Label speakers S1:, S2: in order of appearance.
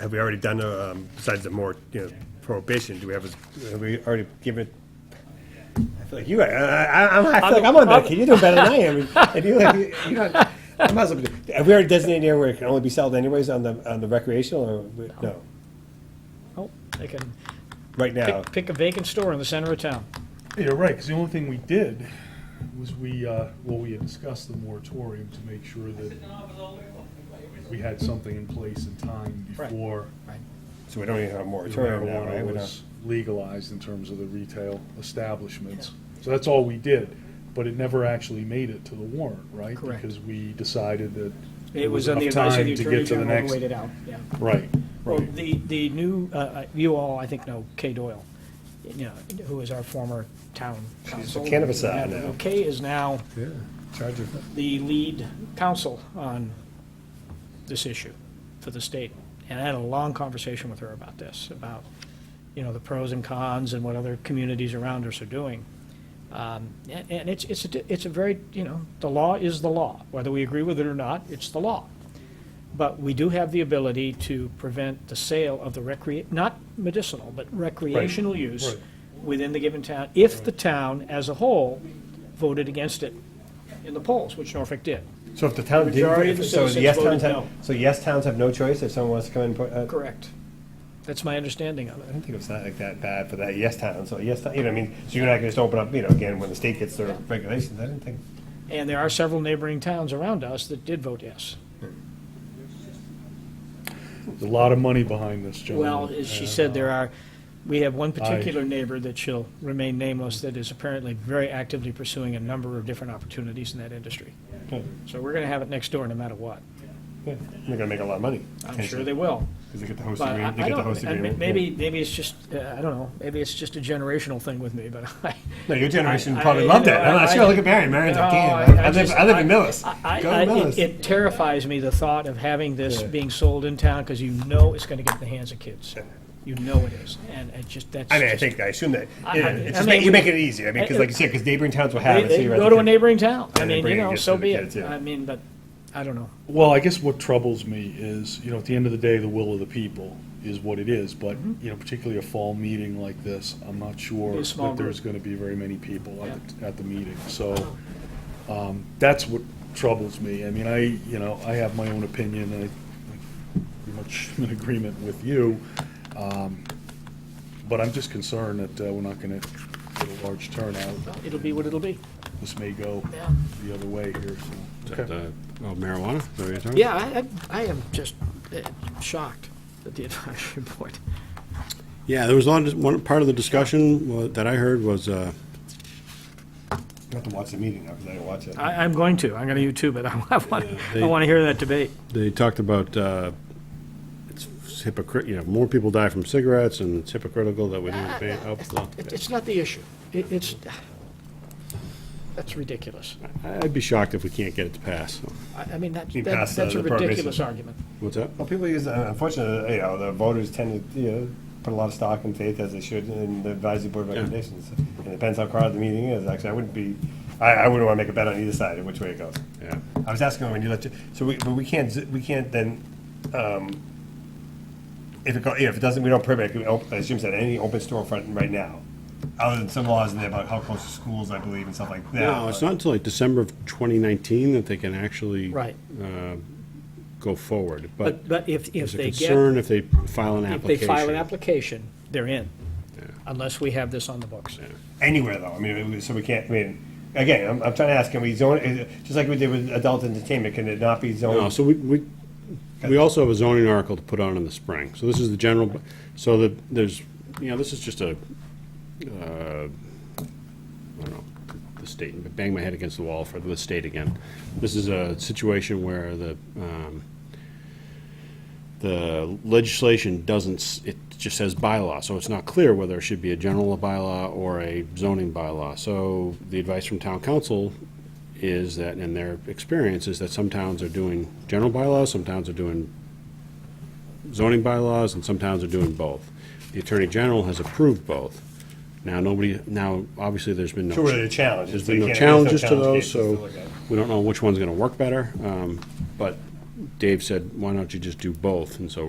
S1: have we already done, uh, um, besides the more, you know, prohibition, do we have, a- have we already given? I feel like you, I, I, I'm- I feel like I'm on that, kid. you're doing better than I am, and you, you- you don't, I might as well, be- have we already designated an area where it can only be sold anyways on the, on the recreational, or, we- no?
S2: Oh, they can
S1: Right now,
S2: pick, pick a vacant store in the center of town.
S3: Yeah, right, because the only thing we did was we, uh, well, we had discussed the moratorium to make sure that we had something in place in time
S2: Right.
S3: before
S1: so we don't even have a
S3: the
S1: moratorium now, right? We don't-
S3: marijuana was legalized in terms of the retail establishments. So that's all we did, but it never actually made it to the warrant, right?
S2: Correct.
S3: Because we decided that
S2: It was on the
S3: enough
S2: advice of
S3: time
S2: the
S3: to
S2: Attorney
S3: get to the
S2: General who
S3: next-
S2: weighed it out, yeah.
S3: Right,
S2: Well,
S3: right.
S2: the, the new, uh, uh, you all, I think, know Kay Doyle, you know, who is our former town council.
S1: cannabis czar now.
S2: Kay is now
S1: Yeah, charge of-
S2: the lead counsel on this issue for the state. And I had a long conversation with her about this, about, you know, the pros and cons and what other communities around us are doing. Um, And and it's, it's, a di- it's a very, you know, the law is the law. Whether we agree with it or not, it's the law. But we do have the ability to prevent the sale of the recre, not medicinal, but recreational use
S3: right.
S2: within the given town, if the town as a whole voted against it in the polls, which Norfolk did.
S1: So if the town
S2: Majority
S1: didn't,
S2: of the
S1: so the
S2: citizens
S1: yes
S2: voted
S1: towns have,
S2: no.
S1: so yes towns have no choice if someone wants to come in, put, uh,
S2: Correct. That's my understanding of
S1: I
S2: it.
S1: don't think it's not like that bad for that yes town, so yes, town- you know, I mean, so you're not gonna just open up, you know, again, when the state gets their regulations, I didn't think.
S2: And there are several neighboring towns around us that did vote yes.
S3: There's a lot of money behind this,
S1: Mm-hmm.
S3: John.
S2: Well, as she
S3: and,
S2: said, there
S3: uh,
S2: are, we have one particular neighbor that shall remain nameless that is apparently very actively pursuing a number of different opportunities in that industry.
S1: Good.
S2: So we're going to have it next door no matter what.
S1: Yeah, They're gonna make a lot of money.
S2: I'm sure they will.
S1: Cause they get the host
S2: But I
S1: agreement, they
S2: I
S1: get the
S2: don't,
S1: host
S2: I mean,
S1: agreement.
S2: maybe, maybe it's just, uh, I don't know, maybe it's just a generational thing with me, but I.
S1: No, your generation
S2: I-
S1: probably
S2: I-
S1: loved
S2: you
S1: it,
S2: know,
S1: I'm not
S2: I-
S1: sure, look at Marion, Marion's like,
S2: No,
S1: damn,
S2: Oh, I- I
S1: I live,
S2: just-
S1: I live in
S2: I-
S1: Millis,
S2: I,
S1: go
S2: I,
S1: to
S2: it,
S1: Millis.
S2: it terrifies me, the thought of having this
S1: Yeah.
S2: being sold in town, because you know it's gonna get in the hands of kids. You know it is, and it just, that's.
S1: I mean, I
S2: just-
S1: think, I assume that,
S2: I- I-
S1: yeah, it's
S2: I
S1: just,
S2: mean,
S1: make- you
S2: we-
S1: make it easier, I mean, cause
S2: I-
S1: like you said, cause neighboring towns will have
S2: They,
S1: it. so
S2: they
S1: you're at
S2: go
S1: the
S2: to a
S1: kid-
S2: neighboring town, I
S1: And they
S2: mean,
S1: bring
S2: you
S1: it
S2: know,
S1: against
S2: so
S1: the
S2: be
S1: kids,
S2: it,
S1: yeah.
S2: I mean, but, I don't know.
S3: Well, I guess what troubles me is, you know, at the end of the day, the will of the people is what it is, but, you know, particularly a fall meeting like this, I'm
S2: Mm-hmm.
S3: not
S2: Be
S3: sure
S2: a small
S3: that there's
S2: group.
S3: gonna be very many people at, the- at the meeting, so, um, that's what troubles me. I mean, I, you know, I have my own opinion, and I, I pretty much am in agreement with you, um, but I'm just concerned that, uh, we're not gonna get a large turnout.
S2: It'll be what it'll be.
S3: This may go
S2: Yeah.
S3: the other way here, so.
S4: Is that, uh, Oh, marijuana? Is that what you're talking
S2: Yeah, I, I, I am just uh, shocked at the advisory board.
S4: about? Yeah, there was one, one part of the discussion wa- that I heard was, uh,
S1: You have to watch the meeting now, cause I didn't watch it.
S2: I, I'm going to, I'm gonna YouTube it, I want, I
S4: they-
S2: want to hear that debate.
S4: they talked about, uh, it's hypocrite, you know, more people die from cigarettes and it's hypocritical that we don't ban alcohol.
S2: It- Uh, It's not the issue. It- It's, that's ridiculous.
S4: I'd be shocked if we can't get it to pass.
S2: I I mean, that-
S1: You
S2: that-
S1: pass the-
S2: that's a
S1: the prohibition.
S2: ridiculous argument.
S4: What's that?
S1: Well, people use, uh, unfortunately, you know, the voters tend to, you know, put a lot of stock and faith, as they should, in the advisory board recommendations. And it depends how crowded the meeting is, actually, I wouldn't be, I, I wouldn't wanna make a bet on either side of which way it goes.
S4: Yeah.
S1: I was asking when you left, so we, but we can't, z- we can't then, um, if it, go- yeah, if it doesn't, we don't permit, it, op- as Jim said, any open storefront right now. Other than some laws in there about how close to schools, I believe, and stuff like that.
S4: No, it's
S1: but-
S4: not until like December of 2019 that they can actually
S2: Right.
S4: uh, go forward,
S2: But,
S4: but
S2: but if, if
S4: there's a
S2: they get,
S4: concern if they file an
S2: if
S4: application.
S2: they file an application, they're in, unless we have this on the books.
S1: anywhere though. I mean, we- so we can't. I mean, again, I'm, I'm trying to ask: Can we zone? is it- Just like we did with adult entertainment, can it not be zoned?
S4: No, so we, we, we also have a zoning article to put on in the spring. So this is the general, so that, there's, you know, this is just a, uh, I don't know, the state, bang my head against the wall for the state again. This is a situation where the, um, the legislation doesn't, s- it just says bylaw, so it's not clear whether it should be a general bylaw or a zoning bylaw. So the advice from town council is that, in their experience, is that some towns are doing general bylaws, some towns are doing zoning bylaws, and some towns are doing both. The Attorney General has approved both. Now, nobody, now, obviously, there's been no.
S1: Sure, there are challenges.
S4: There's
S1: We
S4: been no
S1: can't- there's no
S4: challenges to
S1: challenge
S4: those,
S1: cases to
S4: so
S1: look at.
S4: we don't know which one's gonna work better. um, But Dave said, why don't you just do both? And so